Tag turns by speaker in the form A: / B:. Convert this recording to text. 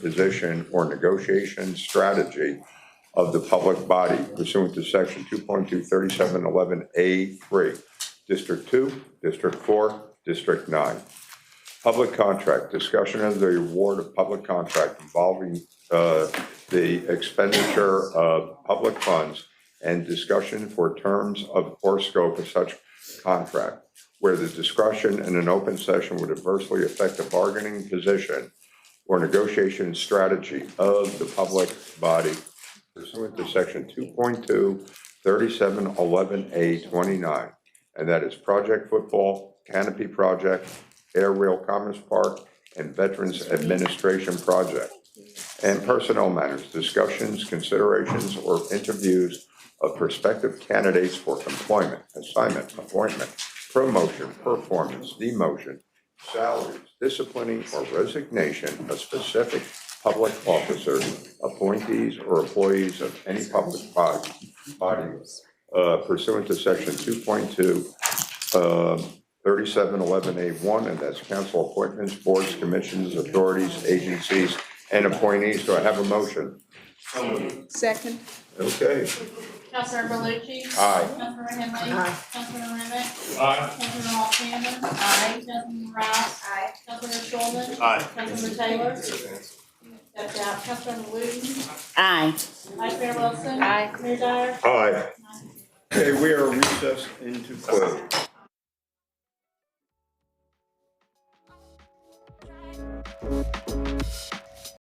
A: position or negotiation strategy of the public body pursuant to section 2.23711A3, District 2, District 4, District 9. Public contract, discussion of the award of public contract involving uh, the expenditure of public funds and discussion for terms of or scope of such contract, where the discussion in an open session would adversely affect the bargaining position or negotiation strategy of the public body pursuant to section 2.2, 3711A 29, and that is Project Football, Canopy Project, Air Rail Commerce Park, and Veterans Administration Project. And personnel matters, discussions, considerations, or interviews of prospective candidates for employment, assignment, appointment, promotion, performance, demotion, salaries, disciplining, or resignation of specific public officers, appointees, or employees of any public body, body uh, pursuant to section 2.2, um, 3711A1, and that's council appointments, boards, commissions, authorities, agencies, and appointees. Do I have a motion?
B: Second,
A: Okay.
C: Councilor Berluci.
A: Aye.
C: Councilor Henry.
B: Aye.
C: Councilor Remick.
D: Aye.
C: Councilor Alexander. Aye. Councilman Rouse. Aye. Councilor Shulman.
D: Aye.
C: Councilor Taylor. That's out. Councilor Wooten.
B: aye.
C: Vice Mayor Wilson. Aye. Mayor Dyer.
A: Aye.
C: Aye.
A: Okay, we are recessed into closed.